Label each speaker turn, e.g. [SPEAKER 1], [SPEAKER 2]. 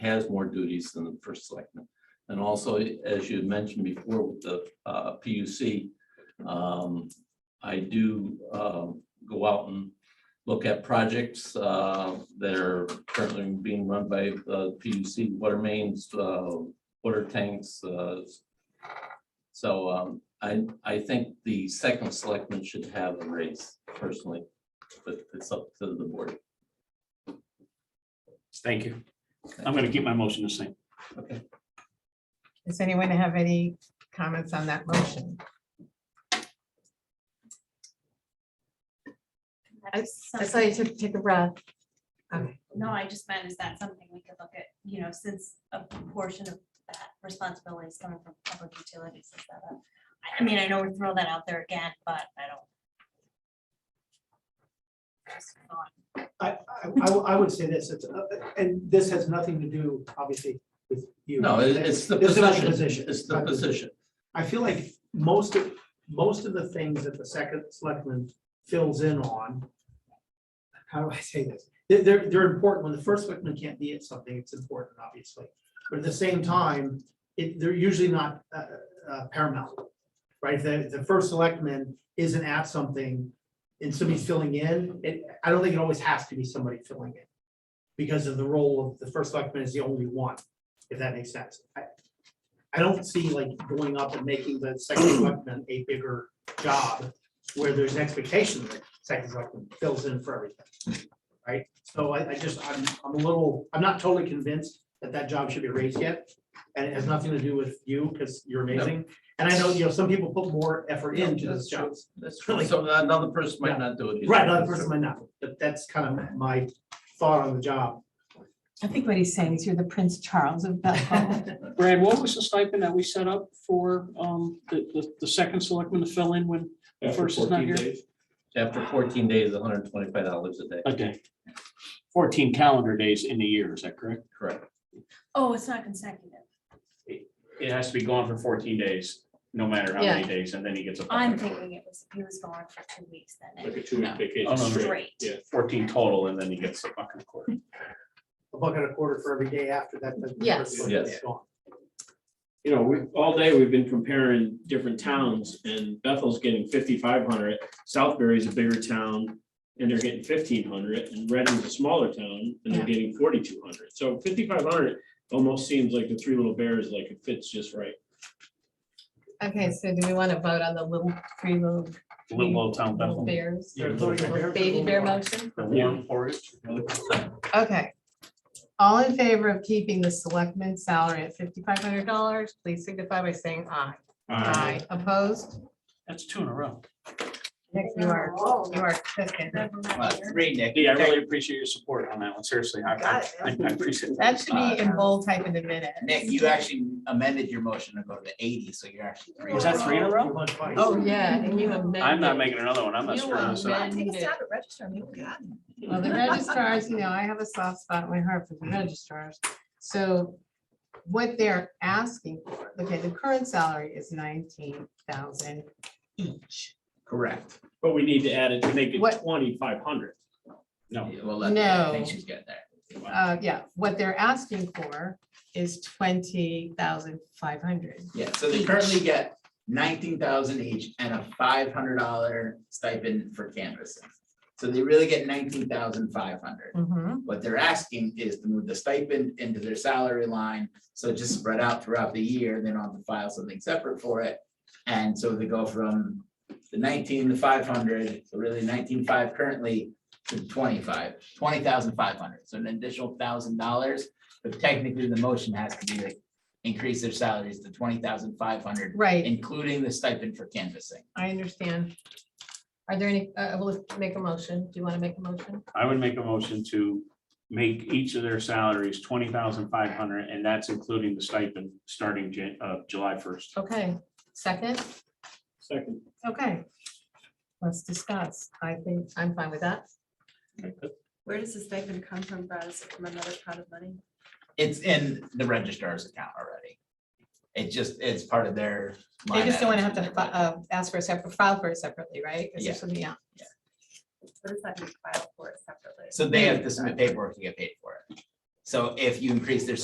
[SPEAKER 1] has more duties than the first selectman. And also, as you had mentioned before with the uh, PUC, um, I do um, go out and look at projects uh, that are currently being run by the PUC, water mains, uh, water tanks. uh, So um, I, I think the second selectman should have a raise personally, but it's up to the board.
[SPEAKER 2] Thank you. I'm gonna keep my motion the same.
[SPEAKER 3] Does anyone have any comments on that motion?
[SPEAKER 4] That's
[SPEAKER 3] I
[SPEAKER 4] something-
[SPEAKER 3] saw you took, take a breath. Okay.
[SPEAKER 4] No, I just meant, is that something we could look at, you know, since a portion of that responsibility is coming from public utilities? is that a- I- I mean, I know we're throwing that out there again, but I don't. Just thought,
[SPEAKER 5] I, I, I w- I would say this, it's, uh, and this has nothing to do, obviously, with you.
[SPEAKER 1] No, it- it's the
[SPEAKER 5] It's about the
[SPEAKER 1] position.
[SPEAKER 5] position.
[SPEAKER 1] It's the position.
[SPEAKER 5] I feel like most of, most of the things that the second selectman fills in on. How do I say this? They're, they're, they're important. When the first selectman can't be at something, it's important, obviously. But at the same time, it, they're usually not uh, uh, paramount. Right? If the, the first selectman isn't at something and somebody's filling in, it, I don't think it always has to be somebody filling in. Because of the role of the first selectman is the only one, if that makes sense. I- I don't see like going up and making the second selectman a bigger job where there's an expectation that second selectman fills in for everything. Right? So I, I just, I'm, I'm a little, I'm not totally convinced that that job should be raised yet. And it has nothing to do with you because you're amazing. And I know, you know, some people put more effort into those jobs.
[SPEAKER 1] That's true. So another person might not do it. either.
[SPEAKER 5] Right, another person might not, but that's kind of my thought on the job.
[SPEAKER 6] I think what he's saying is you're the Prince Charles of Belleville.
[SPEAKER 2] Brad, what was the stipend that we set up for um the the the second selectman to fill in when the first is not here?
[SPEAKER 1] After fourteen days, hundred and twenty-five dollars a day,
[SPEAKER 2] A day. Fourteen calendar days in the year, is that correct?
[SPEAKER 1] correct?
[SPEAKER 4] Oh, it's not consecutive.
[SPEAKER 2] It has to be gone for fourteen days, no matter
[SPEAKER 3] how many
[SPEAKER 2] days, and then he gets a.
[SPEAKER 4] I'm thinking it was, he was gone for two weeks then.
[SPEAKER 7] Like a
[SPEAKER 4] and
[SPEAKER 7] two week
[SPEAKER 4] No.
[SPEAKER 7] vacation
[SPEAKER 2] Oh, no, no.
[SPEAKER 7] straight.
[SPEAKER 4] Straight.
[SPEAKER 7] Yeah,
[SPEAKER 2] Fourteen total, and then he gets a buck and a quarter.
[SPEAKER 5] A buck and a quarter for every day after that. the first
[SPEAKER 3] Yes.
[SPEAKER 5] selectman's
[SPEAKER 1] Yes.
[SPEAKER 5] gone.
[SPEAKER 7] you know, we, all day we've been comparing different towns and Bethel's getting fifty-five hundred, Southbury's a bigger town. And they're getting fifteen hundred and Reading's a smaller town and they're
[SPEAKER 3] Yeah.
[SPEAKER 7] getting forty-two hundred. So fifty-five hundred almost seems like the Three Little Bears, like it fits just right.
[SPEAKER 3] Okay, so do we want to vote on the little three little
[SPEAKER 2] Little old town Bethel.
[SPEAKER 3] little bears?
[SPEAKER 2] Yeah,
[SPEAKER 5] They're voting for
[SPEAKER 3] Baby bear
[SPEAKER 5] everyone.
[SPEAKER 3] motion?
[SPEAKER 2] The warm forage.
[SPEAKER 3] Okay. All in favor of keeping the selectman's salary at fifty-five hundred dollars, please signify by saying aye. Opposed?
[SPEAKER 2] That's two in a row.
[SPEAKER 3] Nick, you are,
[SPEAKER 4] Whoa.
[SPEAKER 3] you are cooking.
[SPEAKER 4] Never mind
[SPEAKER 1] Well,
[SPEAKER 4] here.
[SPEAKER 2] Three, Nick. Yeah, I really appreciate your support on that one, seriously. I- I I I appreciate
[SPEAKER 3] That should be in bold type in a minute.
[SPEAKER 8] Nick, you actually amended your motion to go to eighty, so you're actually. three.
[SPEAKER 2] Was that three in a row?
[SPEAKER 5] You're on twice.
[SPEAKER 3] Oh, yeah, and you amended.
[SPEAKER 2] I'm not making another one. I'm not
[SPEAKER 3] You
[SPEAKER 2] screwing
[SPEAKER 4] um,
[SPEAKER 2] this up.
[SPEAKER 3] amended it.
[SPEAKER 4] at register, you got it.
[SPEAKER 3] Well, the registrars, you know, I have a soft spot in my heart for the registrars. So what they're asking for, okay, the current salary is nineteen thousand each.
[SPEAKER 8] Correct.
[SPEAKER 7] But we need to add it to make
[SPEAKER 3] What-
[SPEAKER 7] it twenty-five hundred.
[SPEAKER 2] No.
[SPEAKER 8] Yeah, Well, let- I
[SPEAKER 3] No.
[SPEAKER 8] think she's getting there.
[SPEAKER 3] Uh, yeah, what they're asking for is twenty thousand five hundred.
[SPEAKER 8] Yeah, so they currently get nineteen thousand each and a five hundred dollar stipend for canvassing. So they really get nineteen thousand five hundred.
[SPEAKER 3] Mm-hmm.
[SPEAKER 8] What they're asking is to move the stipend into their salary line, so it's just spread out throughout the year, they don't have to file something separate for it. And so they go from the nineteen to five hundred, so really nineteen five currently to twenty-five, twenty thousand five hundred, so an additional thousand dollars. But technically, the motion has to be like, increase their salaries to twenty thousand five hundred,
[SPEAKER 3] Right,
[SPEAKER 8] including the stipend for canvassing.
[SPEAKER 3] I understand. Are there any, uh, will make a motion. Do you want to make a motion?
[SPEAKER 2] I would make a motion to make each of their salaries twenty thousand five hundred, and that's including the stipend starting Jan, uh, July first.
[SPEAKER 3] Okay, second?
[SPEAKER 7] Second.
[SPEAKER 3] Okay, let's discuss. I think I'm fine with that.
[SPEAKER 9] Where does the stipend come from, Brad? Is it from another pot of money?
[SPEAKER 8] It's in the registrar's account already. It just, it's part of their.
[SPEAKER 3] They
[SPEAKER 8] line
[SPEAKER 3] just don't want to have
[SPEAKER 8] items
[SPEAKER 3] to
[SPEAKER 8] in
[SPEAKER 3] fi-
[SPEAKER 8] their budget.
[SPEAKER 3] uh, ask for a separate, file for it separately, right? 'Cause there's
[SPEAKER 8] Yeah.
[SPEAKER 3] something else.
[SPEAKER 9] What does that mean, file for it separately?
[SPEAKER 8] So they have to submit paperwork to get paid for it. So if you increase their